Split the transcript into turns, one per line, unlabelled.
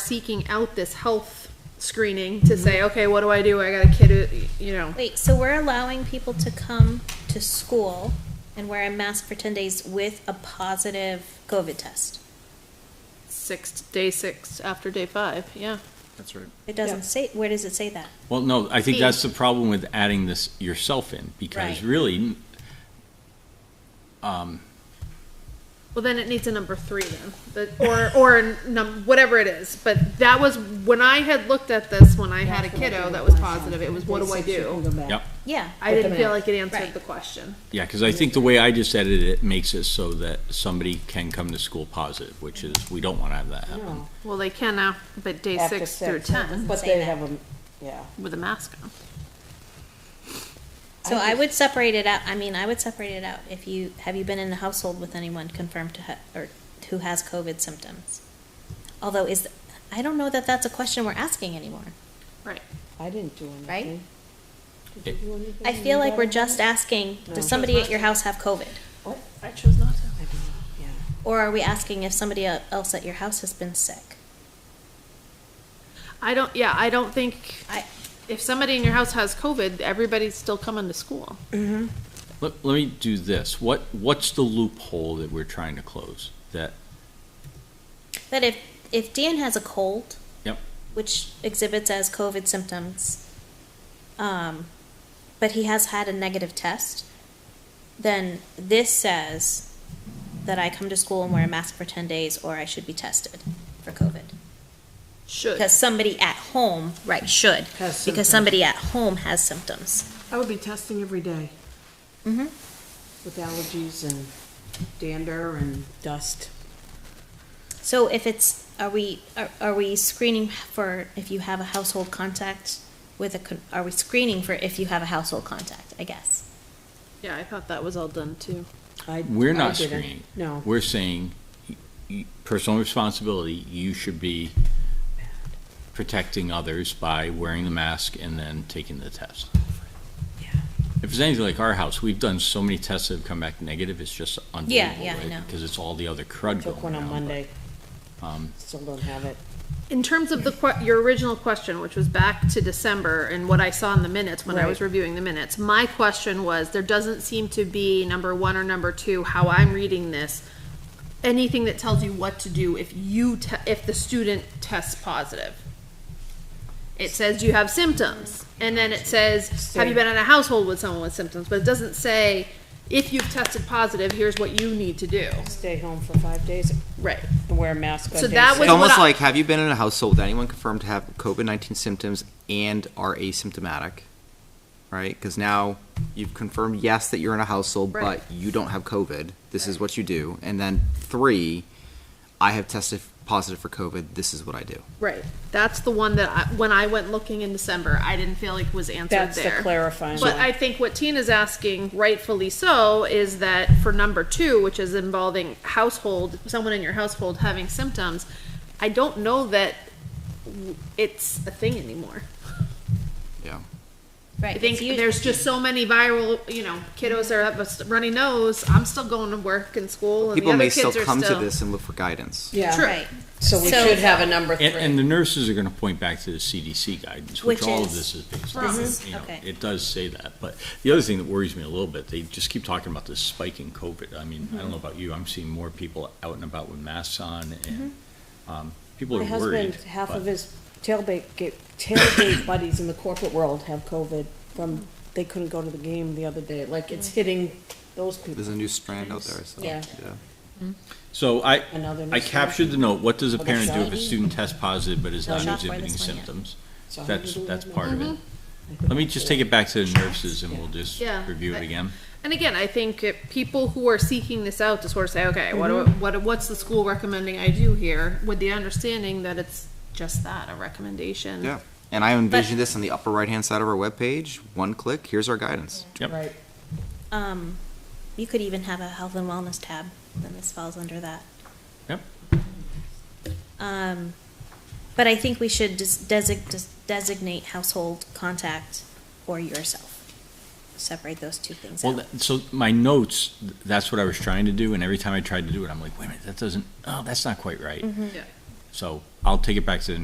seeking out this health screening to
Mm-hmm.
say, okay, what do I do? I got a kid, who you know.
Wait, so we're allowing people to come to school and wear a mask for ten days with a positive COVID test?
six day six after day five yeah
That's right.
It doesn't say, where does it say that?
Well, no, I think
Hey.
that's the problem with adding this yourself in, because
Right.
really, um,
well then it needs a number three then the, or or a num- whatever it is but that was when i had looked at this when i had a kiddo that was positive it was what do i do
yep,
Yeah,
i didn't feel like it answered
Right.
the question
yeah, because I think the way I just edited it makes it so that somebody can come to school positive, which is, we don't want to have that happen.
well they can now but day
After
six through
six.
ten
But
say
they
that.
have a, yeah.
with a mask on
so I would separate it out, I mean, I would separate it out if you, have you been in a household with anyone confirmed to ha- or who has COVID symptoms? Although is, I don't know that that's a question we're asking anymore.
right
I didn't do anything.
Right?
Did you do anything?
I feel like we're just asking, does somebody at your house have COVID?
What?
i chose not to
I don't know, yeah.
Or are we asking if somebody el- else at your house has been sick?
i don't yeah i don't think
I,
if somebody in your house has covid everybody's still coming to school
Let, let me do this, what, what's the loophole that we're trying to close? That,
that if, if Dan has a cold,
yep,
which exhibits as COVID symptoms, um, but he has had a negative test, then this says that I come to school and wear a mask for 10 days or I should be tested for COVID.
should
Because somebody at home, right, should.
Has
because
symptoms.
somebody at home has symptoms.
I would be testing every day
Mm-hmm.
with allergies and dander and dust.
So if it's, are we, are, are we screening for if you have a household contact with a, con- are we screening for if you have a household contact, I guess?
yeah i thought that was all done too
I,
we're
I
not
didn't.
screening.
No.
We're saying, y- y- personal responsibility, you should be protecting others by wearing the mask and then taking the test. If it's anything like our house, we've done so many tests that have come back negative, it's just unbelievable,
yeah, I know.
right? Because it's all the other crud
Took
going
one on
around. but,
Monday,
um,
still don't have it.
In terms of the que- your original question, which was back to December and what I saw in the minutes when I was
Right.
reviewing the minutes, my question was, there doesn't seem to be number one or number two, how I'm reading this, anything that tells you what to do if you, te- if the student tests positive. It says you have symptoms, and then it says, have you been in a household with someone with symptoms, but it doesn't say, if you've tested positive, here's what you need to do.
Stay home for five days
Right.
and wear a mask on
So
day
that
six.
was-
It's
what
almost
I-
like, have you been in a household with anyone confirmed to have COVID nineteen symptoms and are asymptomatic? Right, because now you've confirmed yes that you're in a household,
Right.
but you don't have COVID. This is what you do, and then three, I have tested positive for COVID. This is what I do.
Right. That's the one that I, when I went looking in December, I didn't feel like was answered
That's the
there.
clarifying
But
one.
I think what Tina's asking, rightfully so, is that for number two, which is involving household, someone in your household having symptoms, I don't know that w- it's a thing anymore.
Yeah.
Right.
I think there's just so many viral, you know, kiddos are up a s- runny nose. I'm still going to work and school, and
People
the other
may
kids
still
are
come
still.
to this and look for guidance.
True.
Yeah,
Right.
so we
So-
should have a number
And, and
three.
the nurses are gonna point back to the CDC guidance,
Which
which all of
is-
this is based
this
on,
is-
you know,
okay.
it does say that. But the other thing that worries me a little bit, they just keep talking about this spike in COVID. I mean, I don't know about you, I'm seeing more people out and about with masks on and, um, people
My
are worried.
husband, half
but-
of his tailgate, ga- tailgate buddies in the corporate world have COVID from, they couldn't go to the game the other day. Like, it's hitting those people.
There's a new strand out there. So,
Yeah.
So I,
Another
I
new
captured the note, what does a
Well,
parent do if a
that's-
student tests positive but is
No,
not
not for
exhibiting
this one yet.
symptoms?
So how do
That's,
you do
that's
that?
part of it. Let me just take it back to the nurses and we'll just
Yeah.
review
I-
it again.
And again, I think it, people who are seeking this out to sort of say, okay, what do what, what's the school recommending I do here, with the understanding that it's just that a recommendation.
yeah. And I envision this on the upper right hand side of our webpage. One click. Here's our guidance.
Yep.
Right.
Um, you could even have a health and wellness tab, then this falls under that.
Yep.
Um, but I think we should just desig- just designate household contact or yourself. Separate those two things
Well,
out.
that- so my notes, th- that's what I was trying to do, and
Mm-hmm.
every time I tried to do it, I'm like, wait a minute, that doesn't, oh, that's not quite right.
Yeah.
So I'll take it back to the